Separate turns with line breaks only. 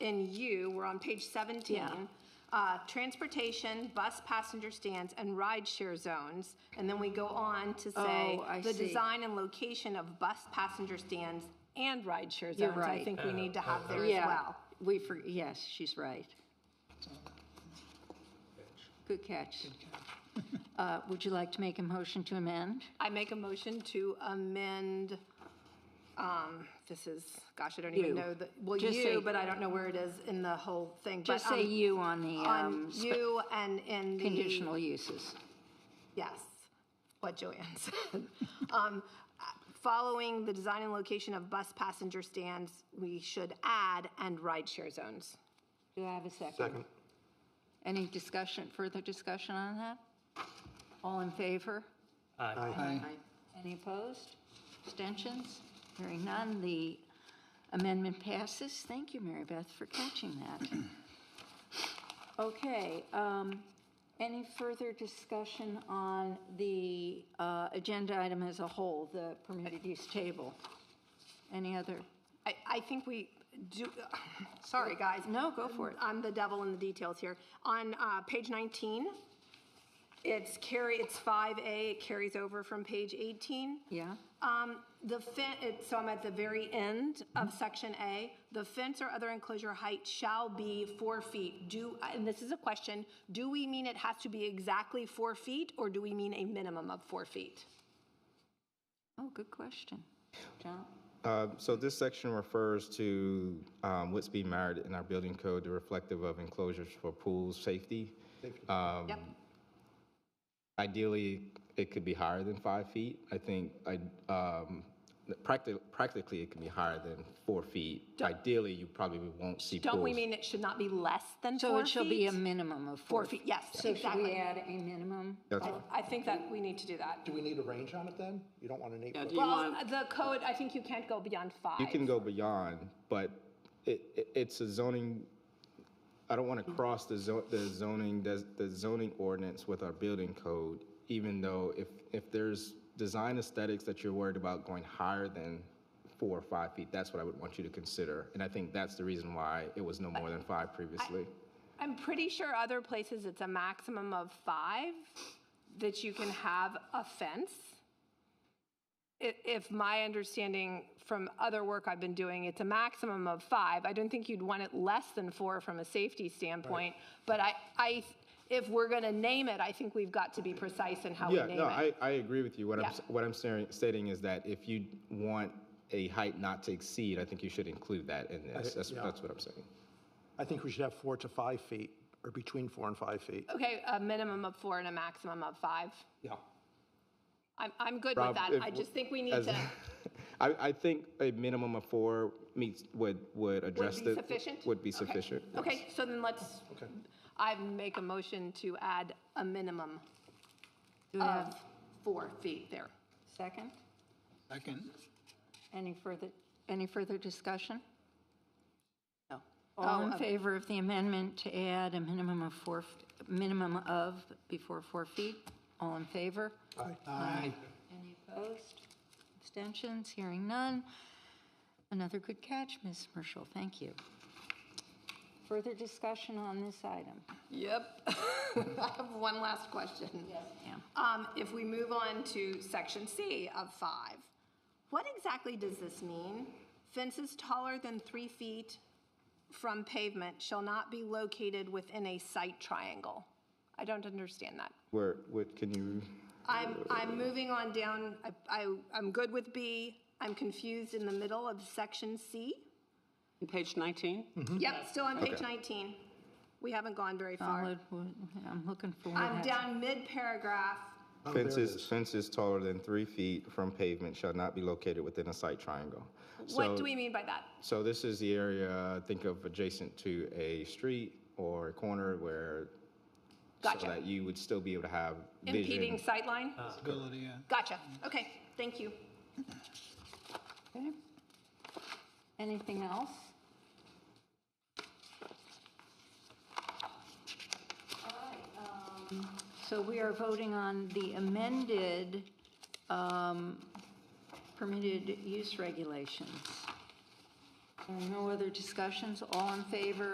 in you, we're on page 17.
Yeah.
Uh, transportation, bus passenger stands, and rideshare zones. And then we go on to say
Oh, I
the
see.
design and location of bus passenger stands and rideshare zones.
You're
I
right.
think we need to have there as
Yeah,
well.
We, for yes, she's right. Good catch. Uh, Would you like to make a motion to amend?
I make a motion to amend, um, this is, gosh, I don't even
You.
know the, well,
Just say-
you, but I don't know where it is in the whole thing. but,
Just say
um,
you on the
On
um, spe-
you and in the.
conditional uses.
Yes, what Joanne said. Um, Following the design and location of bus passenger stands, we should add and rideshare zones.
Do I have a second?
Second.
Any discussion, further discussion on that? All in favor? Aye. Any opposed? Abstentions? Hearing none, the amendment passes. Thank you, Mary Beth, for catching that. Okay, um, any further discussion on the uh, agenda item as a whole, the permitted use table? Any other?
I, I think we do, sorry, guys.
No, go for it.
I'm the devil in the details here. On uh, page 19, it's carry, it's 5A, it carries over from page 18.
Yeah?
Um, The fence, so I'm at the very end of section A. The fence or other enclosure height shall be four feet. Do, and this is a question, do we mean it has to be exactly four feet, or do we mean a minimum of four feet?
Oh, good question. John?
Uh, So this section refers to um, what's being married in our building code, the reflective of enclosures for pools, safety. Um,
Yep,
Ideally, it could be higher than five feet. I think I, um, practi- practically, it can be higher than four feet. Ideally, you probably won't see pools.
Don't we mean it should not be less than four feet?
So it shall be a minimum of
Four
four.
feet, yes,
So should we
exactly.
add a minimum?
That's
I I think that we need to do that.
Do we need a range on it then? You don't want an eight foot?
Well, the code, I think you can't go beyond five.
You can go beyond, but it, it- it's a zoning, I don't want to cross the zo- the zoning, des- the zoning ordinance with our building code, even though if, if there's design aesthetics that you're worried about going higher than four or five feet, that's what I would want you to consider. And I think that's the reason why it was no more than five previously.
I'm pretty sure other places it's a maximum of five that you can have a fence. I- If my understanding from other work I've been doing, it's a maximum of five. I don't think you'd want it less than four from a safety standpoint. But I, I, if we're gonna name it, I think we've got to be precise in how we
Yeah,
name it.
no, I, I agree with you. What I'm,
Yeah.
s- what I'm staring- stating is that if you want a height not to exceed, I think you should include that in this. That's,
yeah.
that's what I'm saying.
I think we should have four to five feet, or between four and five feet.
Okay, a minimum of four and a maximum of five.
Yeah.
I'm, I'm good with
Rob,
that.
if
I
w-
just think we need
as-
to,
I, I think a minimum of four meets, would, would address
be
the.
sufficient?
Would be
Okay.
sufficient.
okay, so then let's,
Okay.
I make a motion to add a minimum
Do we have
of four feet there.
a second?
Second.
Any further, any further discussion?
No.
All
Oh,
in
um,
favor of the amendment to add a minimum of four, f- minimum of before four feet? All in favor?
Aye.
Any opposed? Abstentions? Hearing none. Another good catch, Ms. Marshall. Thank you. Further discussion on this item?
Yep. I have one last question.
Yeah.
Um, if we move on to section C of five, what exactly does this mean? Fences taller than three feet from pavement shall not be located within a site triangle. I don't understand that.
Where, what, can you,
I'm, I'm moving on down, I- I, I'm good with B, I'm confused in the middle of section C.
Page 19?
Mm-hmm.
Yep, still on page 19. We haven't gone very far.
Solid, wood. I'm looking for. where
I'm
that-
down mid-paragraph.
Oh, there it
fences,
is.
fences taller than three feet from pavement shall not be located within a site triangle.
What
So-
do we mean by that?
So this is the area, think of adjacent to a street or a corner where, so
Gotcha.
that you would still be able to have vision. Uh.
Impeding sightline?
Ability, yeah.
Gotcha, okay, thank you.
Okay. Anything else? So we are voting on the amended um, permitted use regulations. There are No other discussions? All in favor